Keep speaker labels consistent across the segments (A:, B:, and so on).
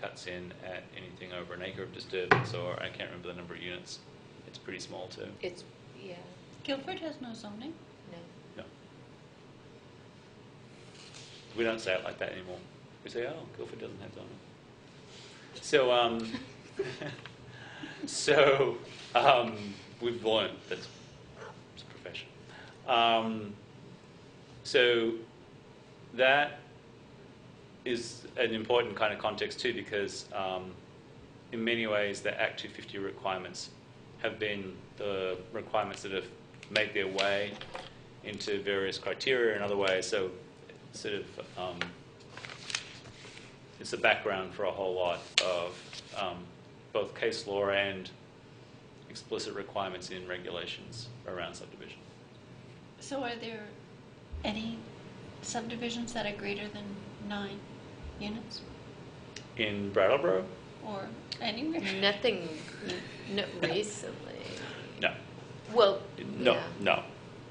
A: cuts in at anything over an acre of disturbance, or I can't remember the number of units. It's pretty small too.
B: It's, yeah,
C: Guilford has no zoning.
B: no.
A: No. We don't say it like that anymore. We say, oh, Guildford doesn't have zoning. So, um, so um, we've learned that's it's a profession. Um, so that is an important kind of context too, because um, in many ways the Act 250 requirements have been the requirements that have made their way into various criteria and other ways. So, sort of, um, it's the background for a whole lot of um, both case law and explicit requirements in regulations around subdivision.
C: So are there any subdivisions that are greater than nine units
A: In Brattleboro,
C: or anywhere?
B: Nothing, not recently.
A: no,
B: Well,
A: no,
B: yeah,
A: no,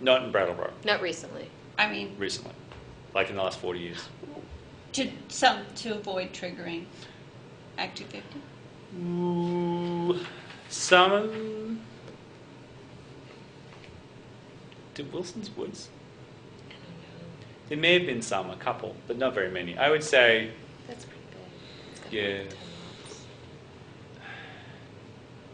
A: not in Brattleboro
B: not recently.
C: I mean,
A: recently, like in the last 40 years.
C: to some to avoid triggering Act 250.
A: Ooh, some. Did Wilson's Woods?
B: I don't know.
A: There may have been some, a couple, but not very many. I would say
B: That's pretty big. It's got
A: Yeah.
B: about 10 lots.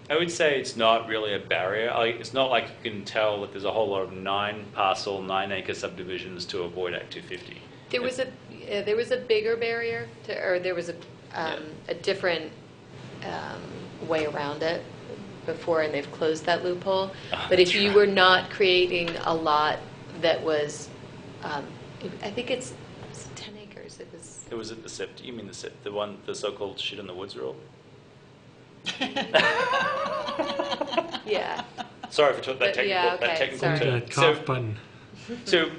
A: I would say it's not really a barrier. Like, it's not like you can tell that there's a whole lot of nine parcel, nine acre subdivisions to avoid Act 250.
B: There was a, yeah, there was a bigger barrier to, or there was a,
A: Yeah.
B: um, a different um, way around it before, and they've closed that loophole.
A: Ah,
B: But if
A: that's
B: you
A: right.
B: were not creating a lot that was, um, I think it's it's 10 acres, it was,
A: It was at the SIP. You mean the SIP, the one, the so-called shit in the woods rule?
B: yeah.
A: Sorry for t- that
B: But-
A: technical,
B: yeah,
A: that
B: okay,
A: technical
B: sorry.
A: term.
D: That
A: So-
D: cough button.
A: So,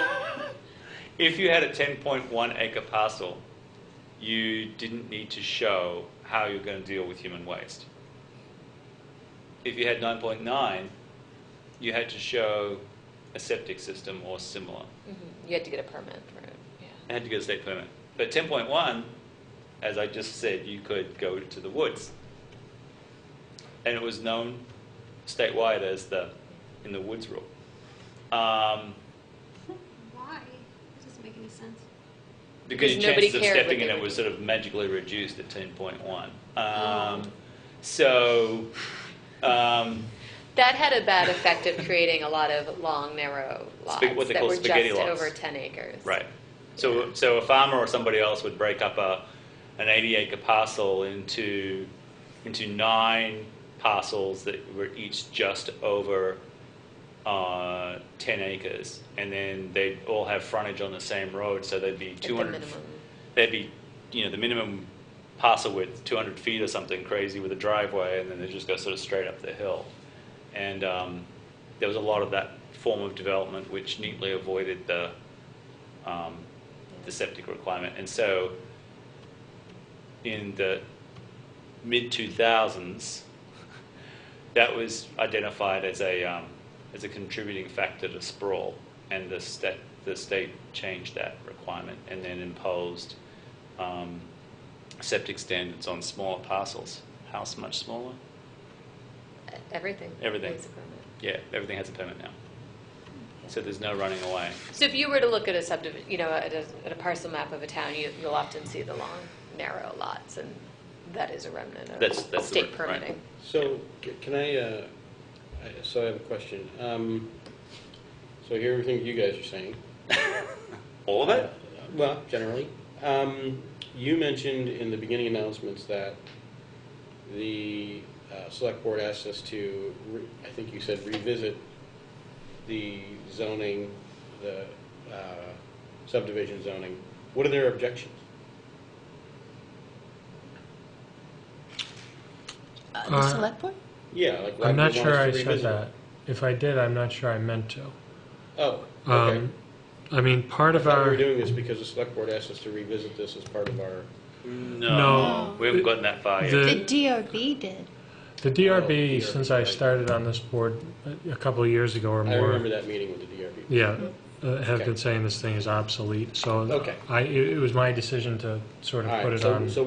A: if you had a 10.1 acre parcel, you didn't need to show how you're going to deal with human waste. If you had 9.9, you had to show a septic system or similar.
B: Mhm. You had to get a permit for it, yeah.
A: I had to get a state permit. But 10.1, as I just said, you could go to the woods. And it was known statewide as the in the woods rule. Um,
E: Why? It doesn't make any sense.
A: Because your
B: Because nobody
A: chances of
B: cared what
A: stepping in
B: they
A: it
B: were Mm.
A: was
B: doing.
A: sort of magically reduced at ten point one. Um, so, um,
B: That had a bad effect of creating a lot of long, narrow lots
A: Spag- what they
B: that
A: call
B: were just
A: spaghetti lots.
B: over 10 acres.
A: right. So, so a farmer or somebody else would break up a, an eighty acre parcel into, into nine parcels that were each just over, uh, ten acres. And then they'd all have frontage on the same road, so they'd be
B: At the
A: two hundred
B: minimum.
A: there'd be, you know, the minimum parcel width, 200 feet or something crazy with a driveway, and then they just go sort of straight up the hill. And um, there was a lot of that form of development which neatly avoided the, um, the septic requirement. And so in the mid 2000s, that was identified as a, um, as a contributing factor to sprawl, and the, sta- the state changed that requirement and then imposed um, septic standards on smaller parcels. House much smaller?
B: e-, Everything.
A: Everything.
B: needs a permit.
A: Yeah, everything has a permit now. So there's no running away.
B: So if you were to look at a subdivision, you know, at a, at a parcel map of a town, you, you'll often see the long, narrow lots, and that is a remnant of
A: That's- that's the
B: state
A: re- right.
B: permitting.
F: So, c- can I, uh, I- so I have a question. Um, So I hear everything you guys are saying. Uh,
A: All of it?
F: Well, generally. Um, You mentioned in the beginning announcements that the uh, select board asked us to, re- I think you said revisit the zoning, the uh, subdivision zoning. What are their objections?
C: Uh, the
D: Uh,
C: select board?
F: Yeah, like. why
D: I'm
F: do you
D: not
F: want
D: sure
F: us to
D: I said
F: revisit it?
D: that. If I did, I'm not sure I meant to.
F: Oh, okay.
D: Um, I mean, part
F: I
D: of
F: thought we
D: our,
F: were doing this because the select board asked us to revisit this as part of our,
A: No.
C: No.
A: We haven't gotten that far yet.
D: The-
C: The DRB did.
D: the
F: Oh,
D: DRB, since I
F: right.
D: started on this board a- a couple of years ago or
F: I remember
D: more,
F: that meeting with the DRB.
D: yeah, uh, have
F: Okay.
D: been saying this thing is obsolete, so
F: Okay.
D: I, it it was my decision to sort
F: All
D: of
F: right,
D: put it
F: so-
D: on.
F: so